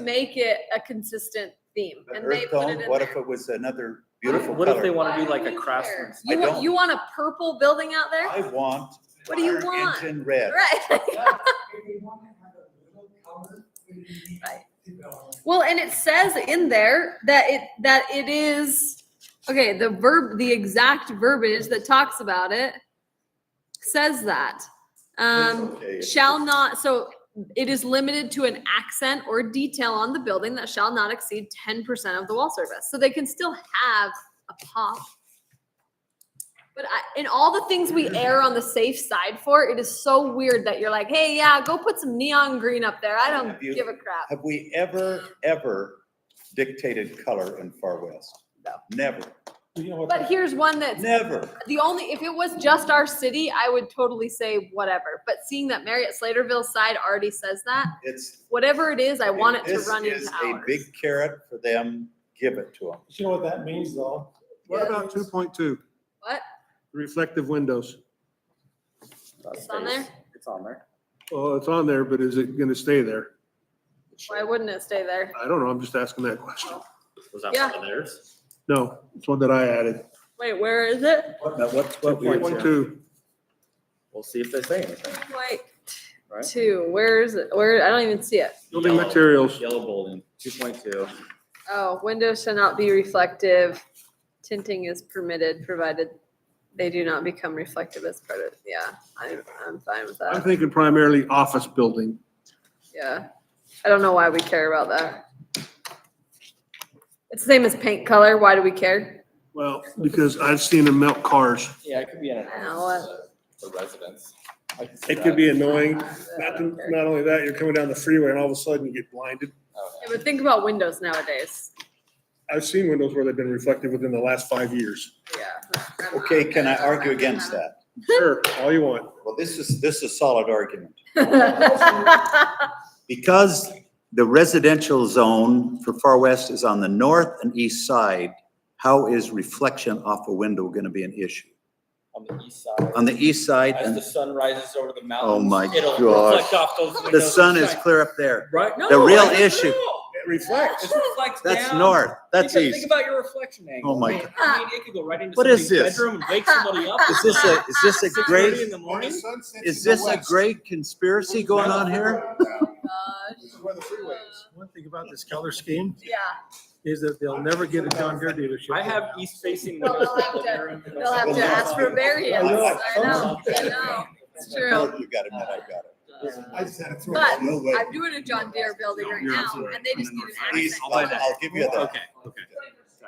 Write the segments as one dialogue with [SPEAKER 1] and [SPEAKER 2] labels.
[SPEAKER 1] make it a consistent theme
[SPEAKER 2] But
[SPEAKER 1] and they
[SPEAKER 2] earth
[SPEAKER 1] put it
[SPEAKER 2] tone,
[SPEAKER 1] in
[SPEAKER 2] what if
[SPEAKER 1] there.
[SPEAKER 2] it was another beautiful
[SPEAKER 3] What if they
[SPEAKER 2] color?
[SPEAKER 3] want to
[SPEAKER 1] Why
[SPEAKER 3] do like
[SPEAKER 1] don't
[SPEAKER 3] a
[SPEAKER 1] you care?
[SPEAKER 3] craftsman's?
[SPEAKER 2] I
[SPEAKER 1] You want,
[SPEAKER 2] don't-
[SPEAKER 1] you want a purple building out
[SPEAKER 2] I
[SPEAKER 1] there?
[SPEAKER 2] want.
[SPEAKER 1] What do you
[SPEAKER 2] fire
[SPEAKER 1] want?
[SPEAKER 2] Engine red.
[SPEAKER 1] Right. Right. Well, and it says in there that it, that it is, okay, the verb, the exact verbiage that talks about it says that. Um,
[SPEAKER 2] Okay.
[SPEAKER 1] shall not, so it is limited to an accent or detail on the building that shall not exceed ten percent of the wall surface. So they can still have a pop. But I, in all the things we err on the safe side for, it is so weird that you're like, hey, yeah, go put some neon green up there. I don't
[SPEAKER 2] Have you-
[SPEAKER 1] give a crap.
[SPEAKER 2] Have we ever, ever dictated color in Far West?
[SPEAKER 1] No.
[SPEAKER 2] Never, Oh,
[SPEAKER 1] But here's one that's
[SPEAKER 2] never.
[SPEAKER 1] the only, if it was just our city, I would totally say whatever. But seeing that Marriott Slaterville's side already says that,
[SPEAKER 2] It's.
[SPEAKER 1] whatever it is, I want it to
[SPEAKER 2] this
[SPEAKER 1] run
[SPEAKER 2] is
[SPEAKER 1] into
[SPEAKER 2] A
[SPEAKER 1] ours.
[SPEAKER 2] big carrot for them, give it to them.
[SPEAKER 4] You know what that means though?
[SPEAKER 5] What about two point two?
[SPEAKER 1] What?
[SPEAKER 5] Reflective windows.
[SPEAKER 1] It's on there?
[SPEAKER 3] It's on there.
[SPEAKER 5] Well, it's on there, but is it gonna stay there?
[SPEAKER 1] Why wouldn't it stay there?
[SPEAKER 5] I don't know. I'm just asking that question.
[SPEAKER 3] Was that
[SPEAKER 1] Yeah.
[SPEAKER 3] one of theirs?
[SPEAKER 5] No, it's one that I added.
[SPEAKER 1] Wait, where is it?
[SPEAKER 3] what's
[SPEAKER 5] Two point two.
[SPEAKER 3] We'll see if they say anything.
[SPEAKER 1] Like
[SPEAKER 3] Right.
[SPEAKER 1] two. Where is it? Where I don't even see it.
[SPEAKER 5] Building
[SPEAKER 3] Yellow.
[SPEAKER 5] materials.
[SPEAKER 3] Yellow building, two point two.
[SPEAKER 1] Oh, windows shall not be reflective. Tinting is permitted provided they do not become reflective as part of. Yeah, I'm I'm fine with
[SPEAKER 5] I'm
[SPEAKER 1] that.
[SPEAKER 5] thinking primarily office building.
[SPEAKER 1] Yeah, I don't know why we care about that. It's the same as paint color. Why do we care?
[SPEAKER 5] Well, because I've seen them melt cars.
[SPEAKER 3] Yeah, it could be in an
[SPEAKER 1] I know what-
[SPEAKER 3] for residents. I can see
[SPEAKER 5] It could
[SPEAKER 3] that.
[SPEAKER 5] be annoying.
[SPEAKER 1] I
[SPEAKER 5] Not,
[SPEAKER 1] don't care.
[SPEAKER 5] not only that, you're coming down the freeway and all of a sudden you get blinded.
[SPEAKER 3] Oh,
[SPEAKER 1] Yeah, but think about windows nowadays.
[SPEAKER 5] I've seen windows where they've been reflective within the last five years.
[SPEAKER 1] Yeah. I'm not-
[SPEAKER 2] Okay, can I argue
[SPEAKER 1] I'm not-
[SPEAKER 2] against that?
[SPEAKER 5] Sure, all you want.
[SPEAKER 2] Well, this is, this is solid argument. Because the residential zone for Far West is on the north and east side, how is reflection off a window going to be an issue?
[SPEAKER 3] On the east side.
[SPEAKER 2] On the east side,
[SPEAKER 3] As the
[SPEAKER 2] Um, and
[SPEAKER 3] sun rises over the mountains.
[SPEAKER 2] Oh my
[SPEAKER 3] it'll
[SPEAKER 2] gosh.
[SPEAKER 3] reflect off those
[SPEAKER 2] the
[SPEAKER 3] windows and
[SPEAKER 2] sun is
[SPEAKER 3] shine.
[SPEAKER 2] clear up there.
[SPEAKER 3] Right? No,
[SPEAKER 2] The real
[SPEAKER 3] I don't
[SPEAKER 2] issue.
[SPEAKER 3] know.
[SPEAKER 5] It reflects.
[SPEAKER 3] It reflects
[SPEAKER 2] That's
[SPEAKER 3] down.
[SPEAKER 2] north, that's
[SPEAKER 3] Because Think
[SPEAKER 2] east.
[SPEAKER 3] about your reflection angle.
[SPEAKER 2] Oh my
[SPEAKER 3] I mean,
[SPEAKER 2] God.
[SPEAKER 3] I mean, it could go right into
[SPEAKER 2] What is
[SPEAKER 3] somebody's
[SPEAKER 2] this?
[SPEAKER 3] bedroom and wake somebody up.
[SPEAKER 2] Is this a, is this a
[SPEAKER 3] Six thirty
[SPEAKER 2] great,
[SPEAKER 3] in the morning?
[SPEAKER 2] is this a great conspiracy going on here?
[SPEAKER 1] Gosh.
[SPEAKER 4] One thing about this color scheme
[SPEAKER 1] Uh, Yeah,
[SPEAKER 4] is that they'll never get a John Deere dealership.
[SPEAKER 3] I have east facing
[SPEAKER 1] They'll
[SPEAKER 3] windows.
[SPEAKER 1] have
[SPEAKER 3] in the
[SPEAKER 1] to-
[SPEAKER 3] bedroom.
[SPEAKER 1] they'll have to ask for variance. I know, I know. It's true.
[SPEAKER 2] You got it, I got it.
[SPEAKER 4] I just had to throw
[SPEAKER 1] But
[SPEAKER 4] it.
[SPEAKER 2] No way.
[SPEAKER 1] I'm doing a John Deere building right
[SPEAKER 5] You're
[SPEAKER 1] now
[SPEAKER 5] absolutely
[SPEAKER 1] and they just need an
[SPEAKER 2] East,
[SPEAKER 1] accent.
[SPEAKER 2] I'll I'll give you that.
[SPEAKER 3] okay.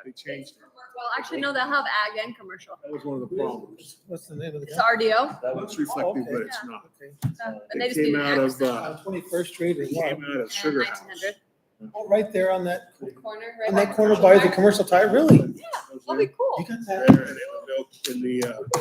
[SPEAKER 5] He changed.
[SPEAKER 1] Well, actually, no, they'll have ag and commercial.
[SPEAKER 5] That was one of the problems.
[SPEAKER 4] What's the name of the
[SPEAKER 1] It's
[SPEAKER 4] guy?
[SPEAKER 1] RDO
[SPEAKER 3] That was
[SPEAKER 5] It's reflective, but it's not.
[SPEAKER 1] and they
[SPEAKER 5] It
[SPEAKER 1] just need
[SPEAKER 5] came
[SPEAKER 1] an
[SPEAKER 5] out of,
[SPEAKER 1] accent.
[SPEAKER 5] uh,
[SPEAKER 4] Twenty-first Street or
[SPEAKER 5] it
[SPEAKER 4] what?
[SPEAKER 5] came out of
[SPEAKER 1] And
[SPEAKER 5] Sugar House.
[SPEAKER 1] 1900
[SPEAKER 4] Oh, Right there on that,
[SPEAKER 1] corner,
[SPEAKER 4] on
[SPEAKER 1] right?
[SPEAKER 4] that corner by the commercial tire, really? You
[SPEAKER 1] Yeah, that'll be cool.
[SPEAKER 4] got
[SPEAKER 5] There
[SPEAKER 4] that?
[SPEAKER 5] and it was built In the, uh,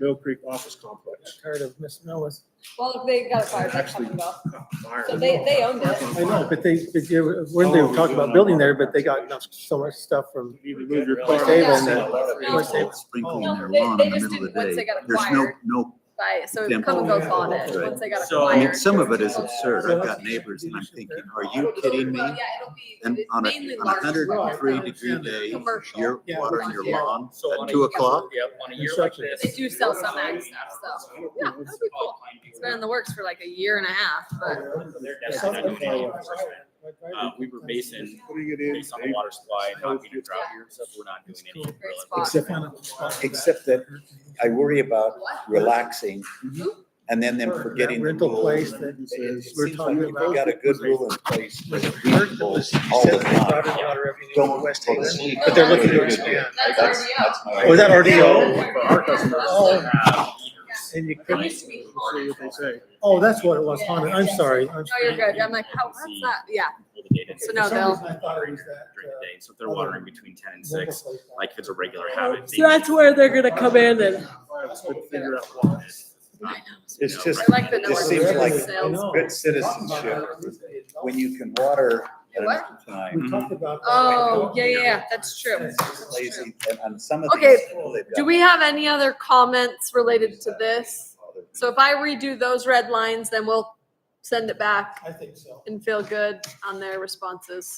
[SPEAKER 5] Mill Creek office complex.
[SPEAKER 4] Tired of Miss Noah's.
[SPEAKER 1] Well, they got a fire truck
[SPEAKER 5] Actually-
[SPEAKER 1] coming up.
[SPEAKER 5] Fire.
[SPEAKER 1] So they, they owned it.
[SPEAKER 4] I know, but they, but you- when
[SPEAKER 2] Oh,
[SPEAKER 4] they were talking about building there, but they got enough- so much stuff from,
[SPEAKER 5] You need to move your
[SPEAKER 4] Of course, they own that.
[SPEAKER 1] course,
[SPEAKER 4] they-
[SPEAKER 2] Sprinkling
[SPEAKER 1] No,
[SPEAKER 2] their
[SPEAKER 1] they-
[SPEAKER 2] lawn
[SPEAKER 1] they
[SPEAKER 2] in the
[SPEAKER 1] just
[SPEAKER 2] middle of
[SPEAKER 1] didn't-
[SPEAKER 2] the
[SPEAKER 1] once
[SPEAKER 2] day.
[SPEAKER 1] they got
[SPEAKER 2] There's no,
[SPEAKER 1] acquired.
[SPEAKER 2] no
[SPEAKER 1] Right, so
[SPEAKER 2] Yeah.
[SPEAKER 1] it come and goes
[SPEAKER 4] Oh,
[SPEAKER 1] on
[SPEAKER 4] yeah.
[SPEAKER 1] it, once they got
[SPEAKER 3] So-
[SPEAKER 1] acquired.
[SPEAKER 2] I mean, some of it is
[SPEAKER 1] Yeah.
[SPEAKER 2] absurd. I've got neighbors and I'm thinking, are you kidding me?
[SPEAKER 1] Well, yeah, it'll be-
[SPEAKER 2] And
[SPEAKER 1] it's
[SPEAKER 2] on a,
[SPEAKER 1] mainly
[SPEAKER 2] on a
[SPEAKER 1] large
[SPEAKER 2] hundred and
[SPEAKER 1] roads,
[SPEAKER 2] three
[SPEAKER 1] so
[SPEAKER 2] degree day,
[SPEAKER 1] Commercial.
[SPEAKER 2] you're
[SPEAKER 4] Yeah,
[SPEAKER 2] watering your
[SPEAKER 1] yeah.
[SPEAKER 2] lawn
[SPEAKER 3] So on
[SPEAKER 2] at
[SPEAKER 3] a
[SPEAKER 2] two
[SPEAKER 3] year-
[SPEAKER 2] o'clock?
[SPEAKER 3] Yep, on a year like
[SPEAKER 4] Construction.
[SPEAKER 3] this.
[SPEAKER 1] They do sell some ag stuff, so, yeah, that'll be cool.
[SPEAKER 3] Oh,
[SPEAKER 1] It's been in the works for like a year and a half, but
[SPEAKER 3] They're
[SPEAKER 4] Something
[SPEAKER 3] definitely not
[SPEAKER 4] like
[SPEAKER 3] doing
[SPEAKER 4] that.
[SPEAKER 3] it. Uh, we were basing,
[SPEAKER 5] Putting it in.
[SPEAKER 3] based on the water supply, and not being a drought here, so we're not doing any.
[SPEAKER 1] great
[SPEAKER 3] drilling.
[SPEAKER 1] spot.
[SPEAKER 2] Except- except that I worry about relaxing
[SPEAKER 1] Mm-hmm.
[SPEAKER 2] and then them forgetting the
[SPEAKER 4] Rental place
[SPEAKER 2] rules. It
[SPEAKER 4] that
[SPEAKER 2] it
[SPEAKER 4] says, we're
[SPEAKER 2] seems like
[SPEAKER 4] talking
[SPEAKER 2] if
[SPEAKER 4] about.
[SPEAKER 2] you got a good rule in place,
[SPEAKER 4] Like,
[SPEAKER 2] it's reasonable all the time. Don't West
[SPEAKER 4] Haven,
[SPEAKER 1] but they're looking to
[SPEAKER 4] expand.
[SPEAKER 1] that's
[SPEAKER 4] Oh, is that RDO?
[SPEAKER 1] RDO? For our customers.
[SPEAKER 4] Oh,
[SPEAKER 3] Uh,
[SPEAKER 4] and you
[SPEAKER 1] RDO. It
[SPEAKER 4] couldn't-
[SPEAKER 1] used to be
[SPEAKER 5] See
[SPEAKER 1] haunted.
[SPEAKER 5] what they say.
[SPEAKER 4] oh, that's what it was, haunted, I'm sorry. I'm
[SPEAKER 1] No, you're good. I'm like, how, what's that? Yeah,
[SPEAKER 3] all the data
[SPEAKER 1] So
[SPEAKER 3] is
[SPEAKER 1] no,
[SPEAKER 4] For some
[SPEAKER 1] they'll-
[SPEAKER 4] reason I thought it was that,
[SPEAKER 3] During the
[SPEAKER 4] uh,
[SPEAKER 3] day, so if they're watering between ten and six,
[SPEAKER 4] rental place.
[SPEAKER 3] like if it's a regular habit.
[SPEAKER 6] So that's where they're gonna come in and,
[SPEAKER 5] But figure out why.
[SPEAKER 2] It's just-
[SPEAKER 1] I like the
[SPEAKER 2] It
[SPEAKER 1] number.
[SPEAKER 2] seems like-
[SPEAKER 4] I
[SPEAKER 1] sales.
[SPEAKER 4] know.
[SPEAKER 2] Good citizenship, when you can water at
[SPEAKER 1] What?
[SPEAKER 2] another time,
[SPEAKER 4] We talked about. that.
[SPEAKER 1] Oh, yeah, yeah, yeah, that's true. That's true.
[SPEAKER 2] lazy, and on some of
[SPEAKER 1] Okay,
[SPEAKER 2] these. people, they've
[SPEAKER 1] Do
[SPEAKER 2] got-
[SPEAKER 1] we have any other comments related to this? So if I redo those red lines, then we'll send it back
[SPEAKER 4] I think so.
[SPEAKER 1] and feel good on their responses.